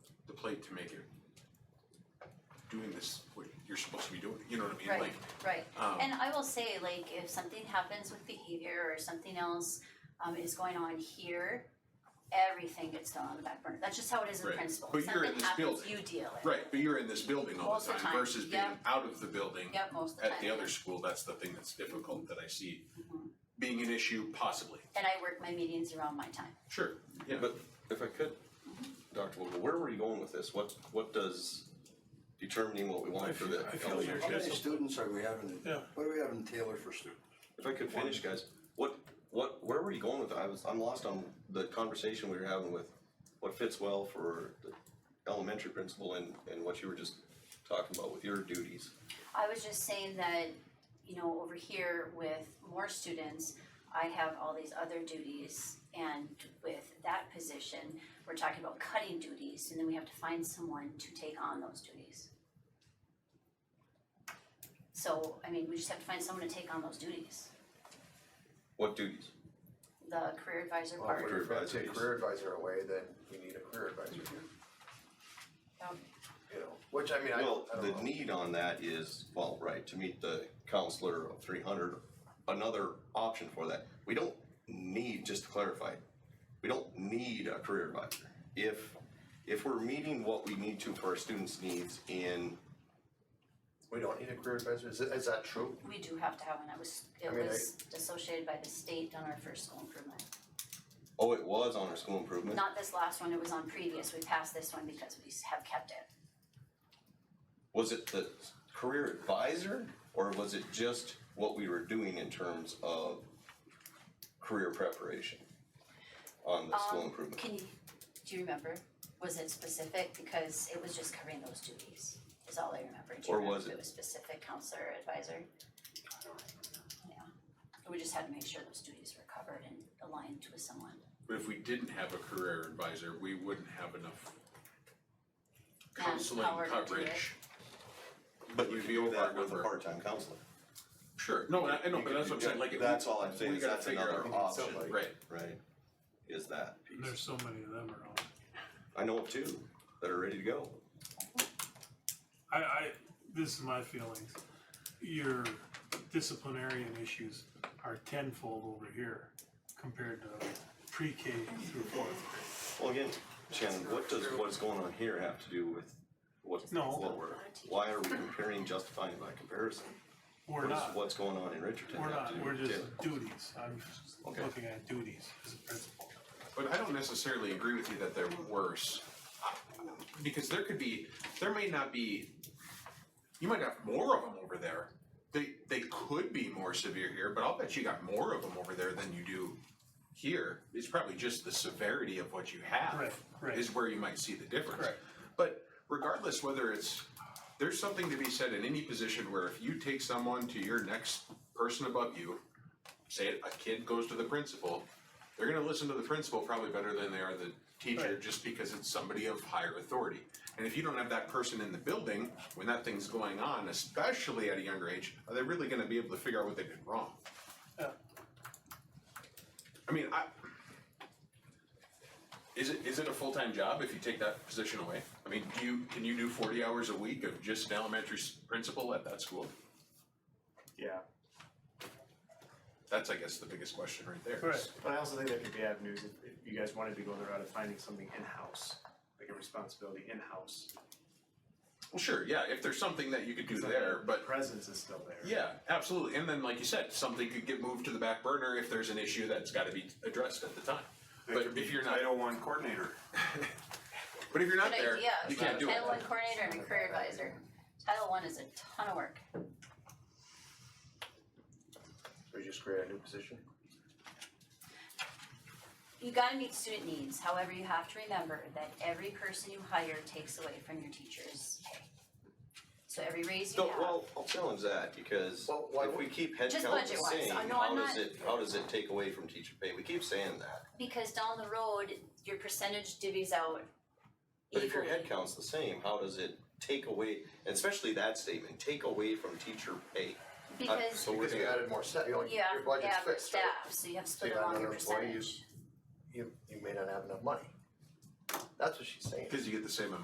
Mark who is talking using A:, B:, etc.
A: plate to make it doing this, what you're supposed to be doing, you know what I mean?
B: Right,
A: Like,
B: right.
A: um,
B: And I will say, like, if something happens with behavior or something else um is going on here, everything gets thrown on the back burner. That's just how it is in
A: Right.
B: principle.
A: But you're in
B: Something
A: this
B: happens,
A: building.
B: you deal it.
A: Right, but you're in this building all
B: Most
A: the
B: of the
A: time
B: time,
A: versus being
B: yeah.
A: out of the building.
B: Yeah, most of the time.
A: At the other school, that's the thing that's difficult that I see
B: Mhm.
A: being an issue possibly.
B: And I work my meetings around my time.
A: Sure, yeah.
C: But if I could, Dr. Vogel, where were you going with this? What, what does determining what we want for the
D: I feel
C: elementary?
D: your-
E: How many
D: Yes.
E: students are we having,
D: Yeah.
E: what are we having tailored for students?
C: If I could finish, guys, what, what, where were you going with, I was, I'm lost on the conversation we were having with what fits well for the elementary principal and, and what you were just talking about with your duties.
B: I was just saying that, you know, over here with more students, I have all these other duties. And with that position, we're talking about cutting duties and then we have to find someone to take on those duties. So, I mean, we just have to find someone to take on those duties.
C: What duties?
B: The career advisor
F: Well, if
B: part,
F: we're gonna
C: Career
F: take
C: advisors.
F: career advisor away, then we need a career advisor,
B: um,
F: you know, which I mean, I, I
C: Well,
F: don't
C: the
F: know.
C: need on that is, well, right, to meet the counselor of three hundred, another option for that. We don't need, just to clarify, we don't need a career advisor. If, if we're meeting what we need to for our students' needs in,
F: We don't need a career advisor, is, it- is that true?
B: we do have to have one. It was,
F: I
B: it
F: mean, I-
B: was dissociated by the state on our first school improvement.
C: oh, it was on our school improvement,
B: Not this last one, it was on previous. We passed this one because we have kept it.
C: was it the career advisor? Or was it just what we were doing in terms of career preparation on the school
B: Um,
C: improvement?
B: Can you, do you remember? Was it specific? Because it was just covering those duties, is all I remember. Do you
C: Or
B: remember
C: was
B: if
C: it-
B: was specific counselor advisor? Yeah. We just had to make sure those duties were covered and aligned with someone.
A: But if we didn't have a career advisor, we wouldn't have enough counseling
B: Manpower to do it.
A: coverage.
C: But you
A: We'd
C: could
A: be
C: do
A: over
C: that
A: our
C: with a
A: number.
C: part-time counselor.
A: Sure, no, I I know, but that's what I'm saying, like.
C: That's all I'm saying,
A: we
C: is
A: gotta
C: that's
A: figure
C: another
A: out-
C: option,
F: somebody.
A: Right,
C: right? Is that
D: And there's
C: piece.
D: so many of them around.
C: I know of two that are ready to go.
D: I, I, this is my feelings. Your disciplinarian issues are tenfold over here compared to pre-K through fourth.
C: Well, again, Shannon, what does what's going on here have to do with what,
D: No.
C: what we're, why are we comparing, justifying by comparison? What
D: We're
C: is-
D: not,
C: What's going on in Richardson
D: we're
C: have to
D: not,
C: do
D: we're
C: with
D: just
C: Taylor?
D: duties. I'm
C: Okay.
D: looking at duties as a principal.
A: But I don't necessarily agree with you that they're worse. I- Because there could be, there may not be, you might have more of them over there. They, they could be more severe here, but I'll bet you got more of them over there than you do here. It's probably just the severity of what you have.
D: Right, right.
A: Is where you might see the difference.
D: Correct.
A: But regardless whether it's, there's something to be said in any position where if you take someone to your next person above you, say a kid goes to the principal, they're gonna listen to the principal probably better than they are the teacher,
D: Right.
A: just because it's somebody of higher authority. And if you don't have that person in the building, when that thing's going on, especially at a younger age, are they really gonna be able to figure out what they did wrong?
D: Yeah.
A: I mean, I, is it, is it a full-time job if you take that position away? I mean, do you, can you do forty hours a week of just an elementary s- principal at that school?
G: Yeah,
A: That's, I guess, the biggest question right there.
D: Right.
G: but I also think there could be avenues if, if you guys wanted to go the route of finding something in-house, like a responsibility in-house.
A: Well, sure, yeah, if there's something that you could do
G: So
A: there,
G: the
A: but,
G: Presence is still there.
A: yeah, absolutely, and then, like you said, something could get moved to the back burner if there's an issue that's gotta be addressed at the time. But if you're not,
E: One coordinator.
A: but if you're not
B: Good
A: there,
B: idea.
A: you can't do it.
B: Title one coordinator and a career advisor. Title one is a ton of work.
F: So we just create a new position?
B: You gotta meet student needs, however, you have to remember that every person you hire takes away from your teacher's pay. So every raise you
C: No,
B: have.
C: well, I'll challenge that because
F: Well, why
C: if we keep head
B: Just
C: count the
B: budget-wise.
C: same,
B: I know I'm
C: how does
B: not-
C: it, how does it take away from teacher pay? We keep saying that.
B: because down the road, your percentage divvies out
C: But if your
B: equally.
C: head count's the same, how does it take away, and especially that statement, take away from teacher pay? Uh,
B: Because,
C: So we're
F: Because you
C: gonna,
F: added more staff, you know,
B: yeah,
F: your budget's
B: yeah, for
F: fixed, right?
B: staff, so you have to split
F: you got
B: along your
F: another employee,
B: percentage.
F: You, you may not have enough money. That's what she's saying.
A: Cause you get the same amount